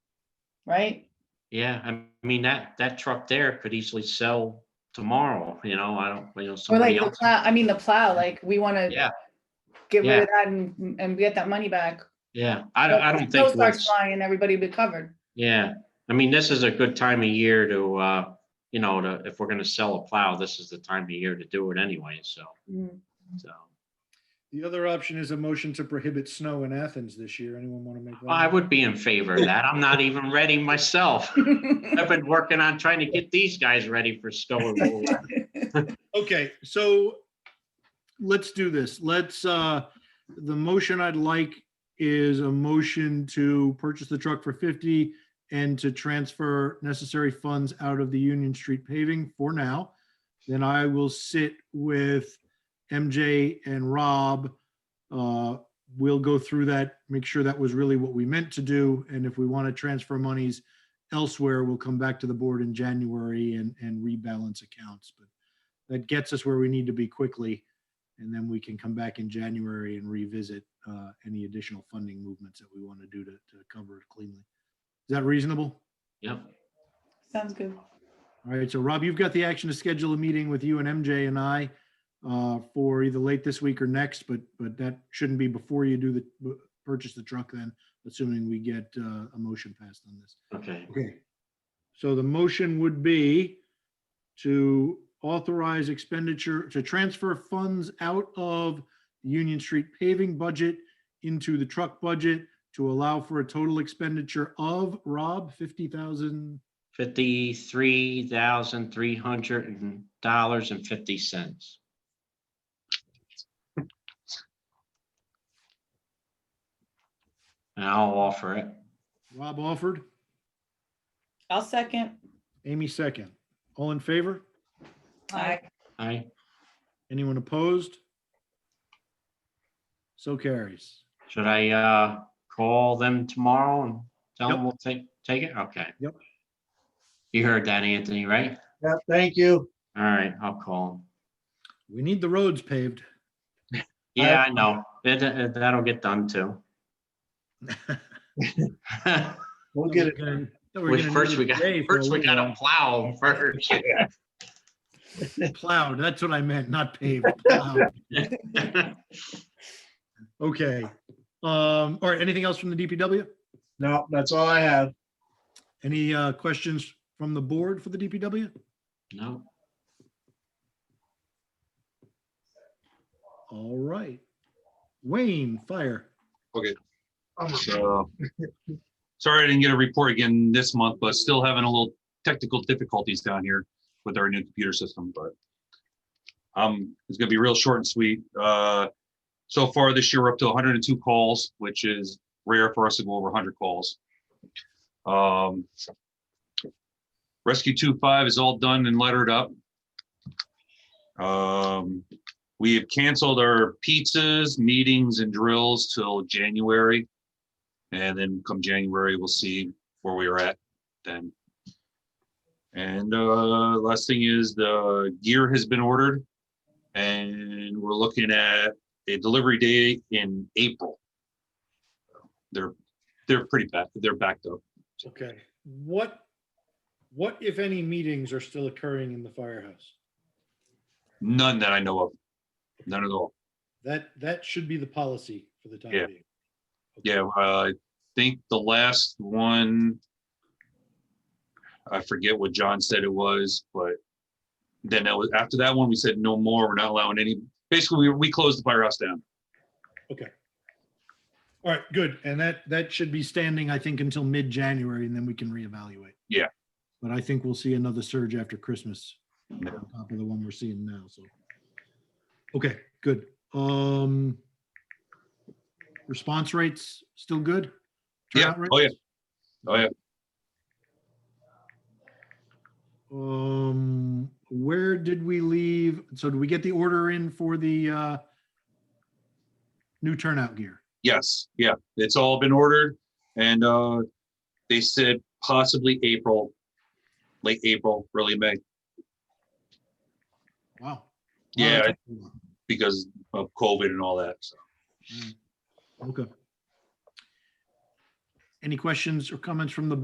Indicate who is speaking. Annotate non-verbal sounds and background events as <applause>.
Speaker 1: right?
Speaker 2: Yeah, I mean, that, that truck there could easily sell tomorrow, you know, I don't, you know,
Speaker 1: Or like
Speaker 2: somebody
Speaker 1: the
Speaker 2: else.
Speaker 1: plow, I mean, the plow, like, we want to
Speaker 2: Yeah,
Speaker 1: get rid
Speaker 2: yeah.
Speaker 1: of that and, and get that money back.
Speaker 2: yeah, I don't, I
Speaker 1: If
Speaker 2: don't
Speaker 1: snow
Speaker 2: think,
Speaker 1: Starts
Speaker 2: we'll-
Speaker 1: flying, everybody be covered. <laughs>
Speaker 2: yeah, I mean, this is a good time of year to, uh, you know, to, if we're gonna sell a plow, this is the time of year to do it anyway, so,
Speaker 1: Mm.
Speaker 2: so.
Speaker 3: The other option is a motion to prohibit snow in Athens this year. Anyone want to make? that?
Speaker 2: I would be in favor of that, I'm not even ready myself. I've been working on trying to get these guys ready for snow. removal.
Speaker 3: Okay, so let's do this. Let's, uh, the motion I'd like is a motion to purchase the truck for fifty and to transfer necessary funds out of the Union Street paving for now. Then I will sit with MJ and Rob. Uh, We'll go through that, make sure that was really what we meant to do. And if we want to transfer monies elsewhere, we'll come back to the board in January and, and rebalance accounts. But that gets us where we need to be quickly. And then we can come back in January and revisit uh, any additional funding movements that we want to do to to cover it cleanly. Is that reasonable?
Speaker 2: Yep,
Speaker 1: Sounds good.
Speaker 3: All right, so Rob, you've got the action to schedule a meeting with you and MJ and I uh, for either late this week or next, but, but that shouldn't be before you do the, purchase the truck then, assuming we get uh, a motion passed on this.
Speaker 2: okay,
Speaker 3: Okay. So the motion would be to authorize expenditure, to transfer funds out of the Union Street paving budget into the truck budget to allow for a total expenditure of, Rob, fifty thousand,
Speaker 2: fifty-three thousand, three hundred dollars and fifty cents. And I'll offer it.
Speaker 3: Rob offered,
Speaker 1: I'll second.
Speaker 3: Amy second. All in favor?
Speaker 1: Aye.
Speaker 2: I,
Speaker 3: Anyone opposed? So carries.
Speaker 2: should I, uh, call them tomorrow and tell them
Speaker 3: Yep.
Speaker 2: we'll take, take it? Okay.
Speaker 3: Yep.
Speaker 2: You heard that, Anthony, right?
Speaker 4: Yeah, thank you.
Speaker 2: All right, I'll call 'em.
Speaker 3: We need the roads paved.
Speaker 2: Yeah, I know. It- it- that'll get done
Speaker 3: <laughs>
Speaker 2: too.
Speaker 4: We'll get it.
Speaker 3: Thought we were
Speaker 2: Well,
Speaker 3: gonna need
Speaker 2: First,
Speaker 3: it
Speaker 2: we got,
Speaker 3: today for a
Speaker 2: first we
Speaker 3: little
Speaker 2: gotta plow 'em
Speaker 3: <laughs>
Speaker 2: first.
Speaker 3: while. Plowed, that's what I meant, not
Speaker 2: <laughs>
Speaker 3: paved. plowed. Okay. Um, all right, anything else from the DPW?
Speaker 4: No, that's all I have.
Speaker 3: Any uh questions from the board for the DPW?
Speaker 2: No,
Speaker 3: All right. Wayne, fire.
Speaker 5: Okay. So, sorry I didn't get a report again this month, but still having a little technical difficulties down here with our new computer system, but um, it's gonna be real short and sweet. Uh, so far this year, we're up to hundred and two calls, which is rare for us to go over hundred calls. Um, Rescue two five is all done and lettered up. Um, we have canceled our pizzas, meetings and drills till January. And then come January, we'll see where we are at then. And uh, last thing is the gear has been ordered. And we're looking at a delivery date in April. They're, they're pretty bad. They're backed up.
Speaker 3: Okay, what, what if any meetings are still occurring in the firehouse?
Speaker 5: None that I know of. None at all.
Speaker 3: That, that should be the policy for the time
Speaker 5: Yeah.
Speaker 3: being.
Speaker 5: Yeah, uh, I think the last one. I forget what John said it was, but then that was, after that one, we said no more, we're not allowing any, basically, we, we closed the firehouse down.
Speaker 3: All right, good. And that, that should be standing, I think, until mid-January and then we can reevaluate.
Speaker 5: Yeah.
Speaker 3: But I think we'll see another surge after Christmas on
Speaker 5: Yeah.
Speaker 3: top of the one we're seeing now, so. Okay, good. Um, response rates still good?
Speaker 5: Yeah,
Speaker 3: Turnout
Speaker 5: oh yeah,
Speaker 3: rates?
Speaker 5: oh yeah,
Speaker 3: Um, where did we leave? So did we get the order in for the, uh, new turnout gear?
Speaker 5: yes, yeah, it's all been ordered, and, uh, they said possibly April, late April, early May,
Speaker 3: Wow.
Speaker 5: Yeah,
Speaker 3: Wow, that's-
Speaker 5: because of COVID and all that, so.
Speaker 3: Okay. Any questions or comments from the